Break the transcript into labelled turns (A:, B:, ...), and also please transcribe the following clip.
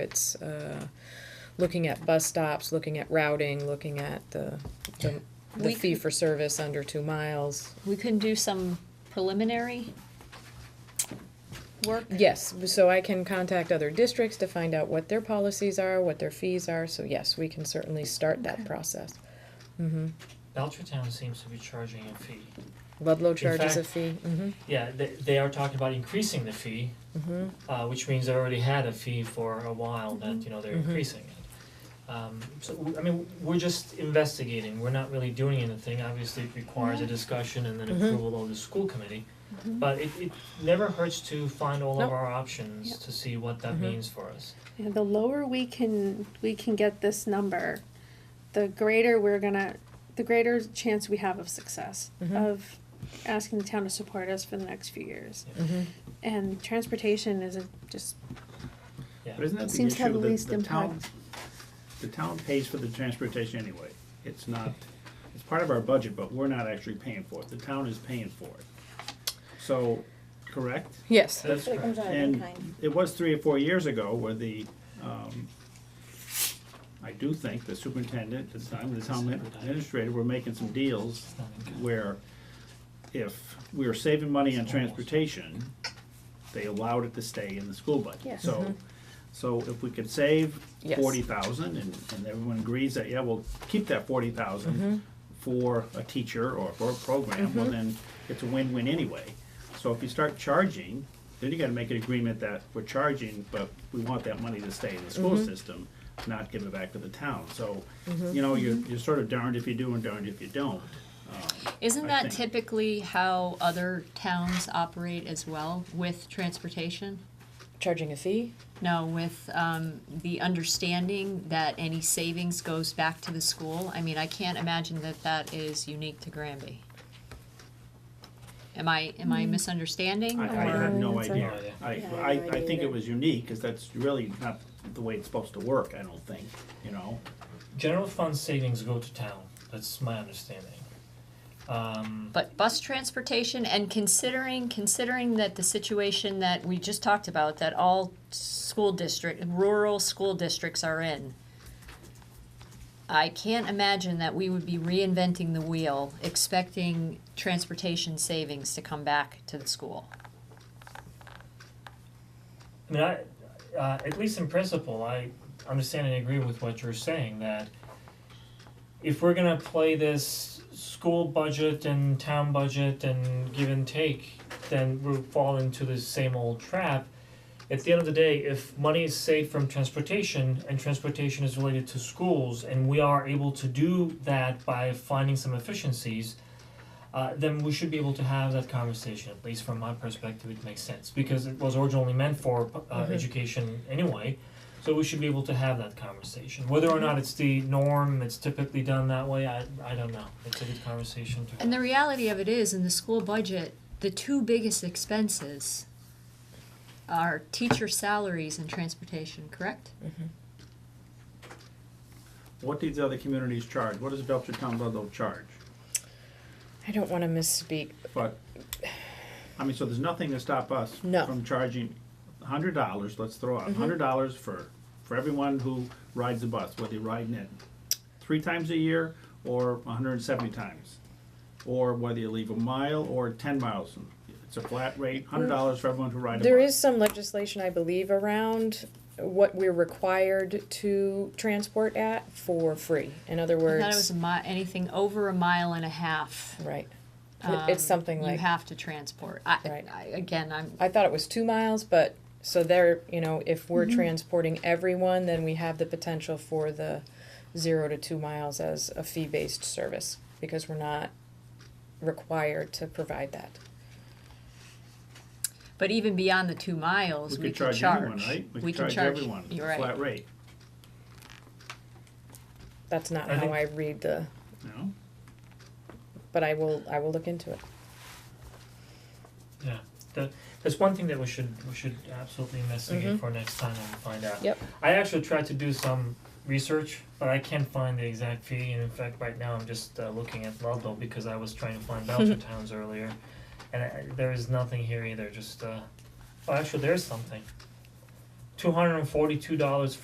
A: It's uh, looking at bus stops, looking at routing, looking at the, the- the
B: We
A: fee
B: could-
A: for service under two miles.
B: We can do some preliminary work.
A: Yes, so I can contact other districts to find out what their policies are, what their fees are, so yes, we can certainly start that
B: Okay.
A: process.
C: Belchertown seems to be charging a fee.
A: Ludlow charges a
C: fact-
A: fee, hmm
C: Yeah, they they are talking about increasing the fee,
A: mm-hmm.
C: uh which means they already had a fee for a while that, you know, they're
A: Mhm.
C: increasing it. Um so w- I mean, we're just investigating, we're not really doing anything, obviously it requires a discussion and then
A: Mhm.
C: approval of the school committee. But it it never hurts to find all
A: Nope.
C: of our options to see what that
A: Mhm.
C: means for us.
D: Yeah, the lower we can we can get this number, the greater we're gonna the greater chance we have of success
A: Mhm.
D: of asking the town to support us for the next few years.
A: hmm
D: And transportation is a, just
E: But isn't that the
D: Seems to have
E: issue,
D: the
E: the,
D: least
E: the town,
D: impact.
E: the town pays for the transportation anyway, it's not, it's part of our budget, but we're not actually paying for it, the town is paying for it. So, correct?
A: Yes,
C: That's
F: It comes
C: correct.
F: out of
E: And
F: kind.
E: it was three or four years ago where the, um, I do think the superintendent, at the time, the town administrator were making some deals
C: It's not in-
E: where if we were saving money on transportation, they allowed it to stay in the school budget.
F: Yes.
E: So, so if we could save
A: Yes.
E: forty thousand and, and everyone agrees that, yeah, we'll keep that forty thousand for a teacher or for a program, well then it's a win-win anyway. So if you start charging, then you gotta make an agreement that we're charging, but we want that money to stay in the school system, not give it back to the town. So, you know, you're, you're sort of darned if you do and darned if you don't. Um,
B: Isn't
E: I
B: that
E: think-
B: typically how other towns operate as well with transportation?
A: charging a fee,
B: No, with um, the understanding that any savings goes back to the school? I mean, I can't imagine that that is unique to Granby. Am I, am I misunderstanding?
E: I, I
B: or-
E: have no
D: That's
E: idea.
C: okay.
F: Yeah, I
E: I, I,
F: have no
E: I
F: idea
E: think it
F: either.
E: was unique, cause that's really not the way it's supposed to work, I don't think, you know?
C: General fund savings go to town, that's my understanding. Um
B: But bus transportation and considering, considering that the situation that we just talked about, that all school district, rural school districts are in, I can't imagine that we would be reinventing the wheel, expecting transportation savings to come back to the school.
C: I mean, I, uh, at least in principle, I understand and agree with what you're saying, that if we're gonna play this school budget and town budget and give and take, then we'll fall into the same old trap. At the end of the day, if money is saved from transportation and transportation is related to schools and we are able to do that by finding some efficiencies, uh, then we should be able to have that conversation. At least from my perspective, it makes sense because it was originally meant for uh, education anyway. So we should be able to have that conversation. Whether or not it's the norm, it's typically done that way. I I don't know. It's a good conversation to have.
B: And the reality of it is, in the school budget, the two biggest expenses are teacher salaries and transportation, correct?
E: What do these other communities charge? What does Belchertown Ludlow charge?
A: I don't wanna misspeak,
E: But, I mean, so there's nothing to stop us
A: No. Mm-hmm.
E: from charging hundred dollars, let's throw out, hundred dollars for, for everyone who rides the bus, whether you're riding it three times a year or hundred and seventy times. Or whether you leave a mile or ten miles, it's a flat rate, hundred dollars for everyone who rides a bus.
A: There is some legislation, I believe, around what we're required to transport at for free. In other
B: I
A: words,
B: thought it was a mi- anything over a mile and a half.
A: right. It- it's
B: um,
A: something
B: You
A: like
B: have to transport. I,
A: Right.
B: I, again, I'm,
A: I thought it was two miles, but so there, you know, if we're transporting everyone, then we have the potential for the zero to two miles as a fee-based service because we're not required to provide that.
B: but even beyond the two miles, we
E: We could
B: can
E: charge
B: charge.
E: anyone, right?
B: We can
E: could
B: charge,
E: everyone,
B: you're right.
E: flat rate,
A: That's not
C: I
A: how
C: think-
A: I read the,
E: no?
A: but I will, I will look into it.
C: Yeah, that, that's one thing that we should, we should absolutely investigate for next time and find out.
A: Yep.
C: I actually tried to do some research, but I can't find the exact fee, and in fact, right now, I'm just uh, looking at Ludlow because I was trying to find Belcher towns earlier, and I, there is nothing here either, just, uh, oh, actually, there's something. two hundred and forty-two dollars